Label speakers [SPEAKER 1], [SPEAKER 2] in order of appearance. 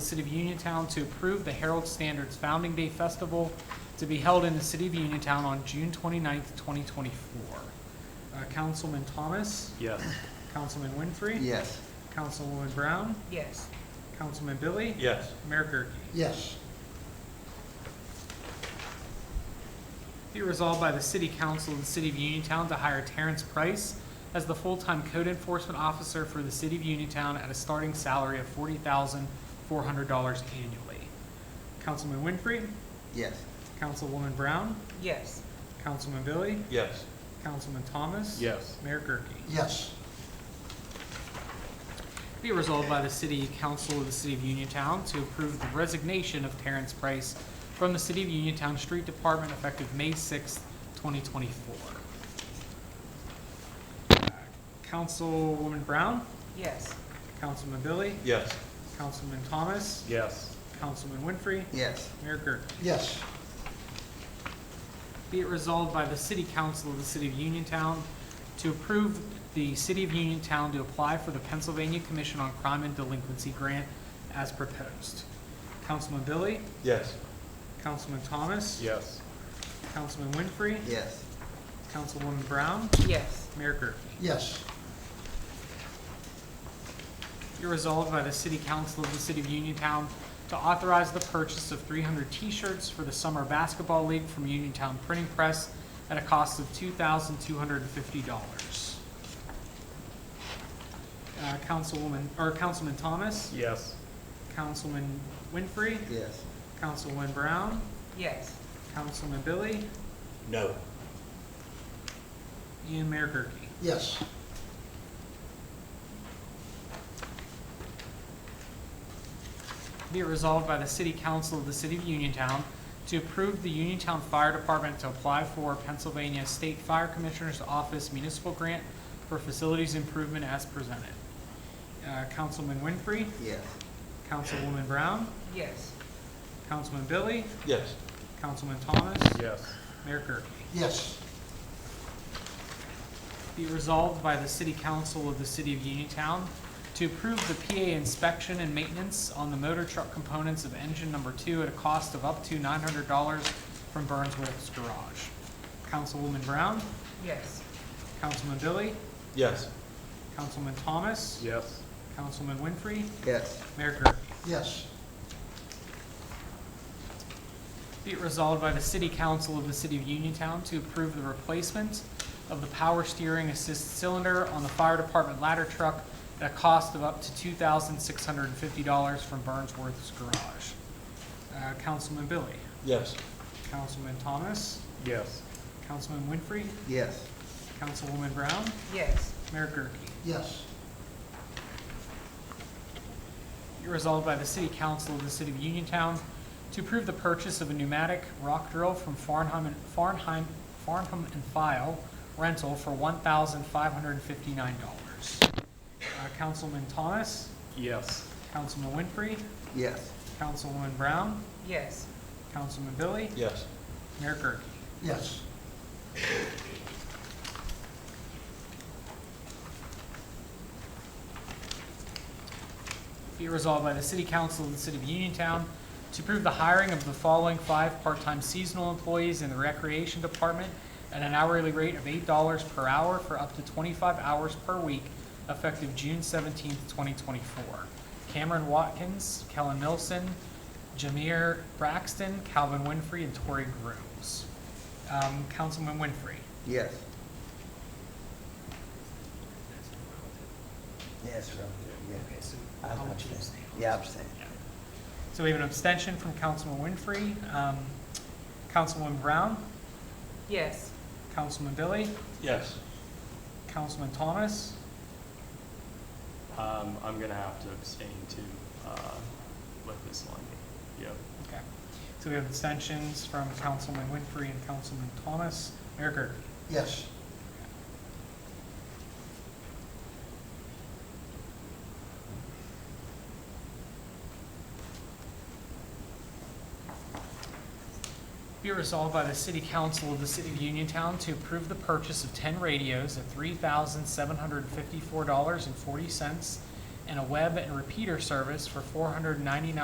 [SPEAKER 1] City of Uniontown to approve the Herald Standards Founding Day Festival to be held in the City of Uniontown on June 29th, 2024. Uh, Councilman Thomas,
[SPEAKER 2] Yes.
[SPEAKER 1] Councilman Winfrey.
[SPEAKER 3] Yes.
[SPEAKER 1] Councilwoman Brown,
[SPEAKER 4] yes,
[SPEAKER 1] Councilman Billy,
[SPEAKER 2] Yes.
[SPEAKER 1] Mayor Gurke.
[SPEAKER 3] Yes.
[SPEAKER 1] Be resolved by the City Council of the City of Uniontown to hire Terrence Price as the full-time code enforcement officer for the City of Uniontown at a starting salary of forty thousand four hundred dollars annually. Councilman Winfrey,
[SPEAKER 3] Yes.
[SPEAKER 1] Councilwoman Brown,
[SPEAKER 4] yes,
[SPEAKER 1] Councilman Billy,
[SPEAKER 2] Yes.
[SPEAKER 1] Councilman Thomas.
[SPEAKER 2] Yes.
[SPEAKER 1] Mayor Gurke.
[SPEAKER 3] Yes.
[SPEAKER 1] Be it resolved by the City Council of the City of Uniontown to approve the resignation of Terrence Price from the City of Uniontown Street Department effective May sixth, twenty twenty-four. Uh, Councilwoman Brown,
[SPEAKER 4] yes,
[SPEAKER 1] Councilman Billy,
[SPEAKER 2] Yes.
[SPEAKER 1] Councilman Thomas,
[SPEAKER 2] Yes.
[SPEAKER 1] Councilman Winfrey,
[SPEAKER 3] Yes.
[SPEAKER 1] Mayor Gurke.
[SPEAKER 3] Yes.
[SPEAKER 1] Be it resolved by the City Council of the City of Uniontown to approve the City of Uniontown to apply for the Pennsylvania Commission on Crime and Delinquency Grant as proposed. Councilman Billy,
[SPEAKER 2] Yes.
[SPEAKER 1] Councilman Thomas,
[SPEAKER 2] Yes.
[SPEAKER 1] Councilman Winfrey,
[SPEAKER 3] Yes.
[SPEAKER 1] Councilwoman Brown,
[SPEAKER 4] yes,
[SPEAKER 1] Mayor Gurke.
[SPEAKER 3] Yes.
[SPEAKER 1] Be resolved by the City Council of the City of Uniontown to authorize the purchase of 300 T-shirts for the Summer Basketball League from Uniontown Printing Press at a cost of $2,250. Uh, Councilwoman, or Councilman Thomas,
[SPEAKER 2] Yes.
[SPEAKER 1] Councilman Winfrey,
[SPEAKER 3] Yes.
[SPEAKER 1] Councilwoman Brown,
[SPEAKER 4] yes,
[SPEAKER 1] Councilman Billy,
[SPEAKER 2] No.
[SPEAKER 1] and Mayor Gurke.
[SPEAKER 3] Yes.
[SPEAKER 1] Be it resolved by the City Council of the City of Uniontown to approve the Uniontown Fire Department to apply for Pennsylvania State Fire Commissioner's Office Municipal Grant for Facilities Improvement as presented. Uh, Councilman Winfrey,
[SPEAKER 3] Yes.
[SPEAKER 1] Councilwoman Brown,
[SPEAKER 4] yes,
[SPEAKER 1] Councilman Billy,
[SPEAKER 2] Yes.
[SPEAKER 1] Councilman Thomas,
[SPEAKER 2] Yes.
[SPEAKER 1] Mayor Gurke.
[SPEAKER 3] Yes.
[SPEAKER 1] Be resolved by the City Council of the City of Uniontown to approve the PA inspection and maintenance on the motor truck components of engine number two at a cost of up to nine hundred dollars from Burnsworth's Garage. Councilwoman Brown,
[SPEAKER 4] yes,
[SPEAKER 1] Councilman Billy,
[SPEAKER 2] Yes.
[SPEAKER 1] Councilman Thomas,
[SPEAKER 2] Yes.
[SPEAKER 1] Councilman Winfrey,
[SPEAKER 3] Yes.
[SPEAKER 1] Mayor Gurke.
[SPEAKER 3] Yes.
[SPEAKER 1] Be it resolved by the City Council of the City of Uniontown to approve the replacement of the power steering assist cylinder on the fire department ladder truck at a cost of up to two thousand six hundred and fifty dollars from Burnsworth's Garage. Uh, Councilman Billy,
[SPEAKER 2] Yes.
[SPEAKER 1] Councilman Thomas,
[SPEAKER 2] Yes.
[SPEAKER 1] Councilman Winfrey,
[SPEAKER 3] Yes.
[SPEAKER 1] Councilwoman Brown,
[SPEAKER 4] yes,
[SPEAKER 1] Mayor Gurke.
[SPEAKER 3] Yes.
[SPEAKER 1] Be resolved by the City Council of the City of Uniontown to approve the purchase of a pneumatic rock drill from Farnham and, Farnheim, Farnham and File rental for one thousand five hundred and fifty-nine dollars. Uh, Councilman Thomas,
[SPEAKER 2] Yes.
[SPEAKER 1] Councilman Winfrey,
[SPEAKER 3] Yes.
[SPEAKER 1] Councilwoman Brown,
[SPEAKER 4] yes,
[SPEAKER 1] Councilman Billy,
[SPEAKER 2] Yes.
[SPEAKER 1] Mayor Gurke.
[SPEAKER 3] Yes.
[SPEAKER 1] Be it resolved by the City Council of the City of Uniontown to approve the hiring of the following five part-time seasonal employees in the Recreation Department at an hourly rate of eight dollars per hour for up to twenty-five hours per week, effective June seventeenth, twenty twenty-four. Cameron Watkins, Kellen Milson, Jameer Braxton, Calvin Winfrey, and Tori Grooms. Um, Councilman Winfrey.
[SPEAKER 3] Yes. Yes, right there, yeah. I'll
[SPEAKER 1] How would you
[SPEAKER 3] abstain.
[SPEAKER 1] abstain?
[SPEAKER 3] Yeah, abstain.
[SPEAKER 1] So we have an abstention from Councilman Winfrey. Um, Councilwoman Brown?
[SPEAKER 4] yes,
[SPEAKER 1] Councilman Billy,
[SPEAKER 2] Yes.
[SPEAKER 1] Councilman Thomas,
[SPEAKER 5] Um, I'm gonna have to abstain too, uh, with this one. Yep.
[SPEAKER 1] okay. So we have abstentions from Councilman Winfrey and Councilman Thomas. Mayor Gurke.
[SPEAKER 3] Yes.
[SPEAKER 1] Be it resolved by the City Council of the City of Uniontown to approve the purchase of ten radios at three thousand seven hundred fifty-four dollars and forty cents and a web and repeater service for four hundred ninety-nine